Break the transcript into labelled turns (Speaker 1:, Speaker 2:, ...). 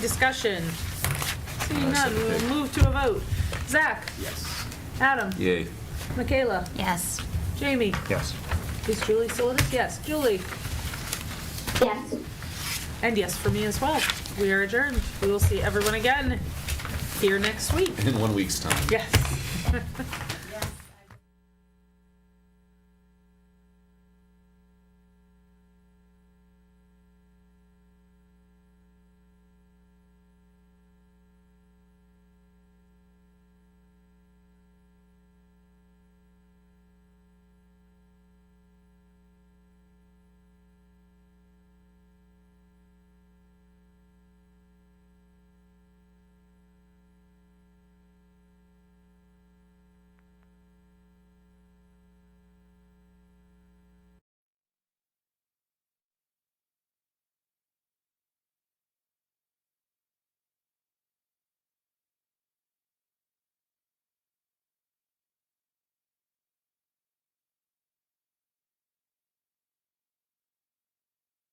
Speaker 1: Discussion. Seeing none,
Speaker 2: Nice
Speaker 1: we will
Speaker 2: pick.
Speaker 1: move to a vote. Zach?
Speaker 2: Yes.
Speaker 1: Adam?
Speaker 2: Yay.
Speaker 1: Michaela?
Speaker 3: Yes.
Speaker 1: Jamie?
Speaker 2: Yes.
Speaker 1: Is Julie still with us? Yes. Julie?
Speaker 3: Yes.
Speaker 1: And yes for me as well. We are adjourned. We will see everyone again here next week.
Speaker 2: In one week's time.
Speaker 1: Yes.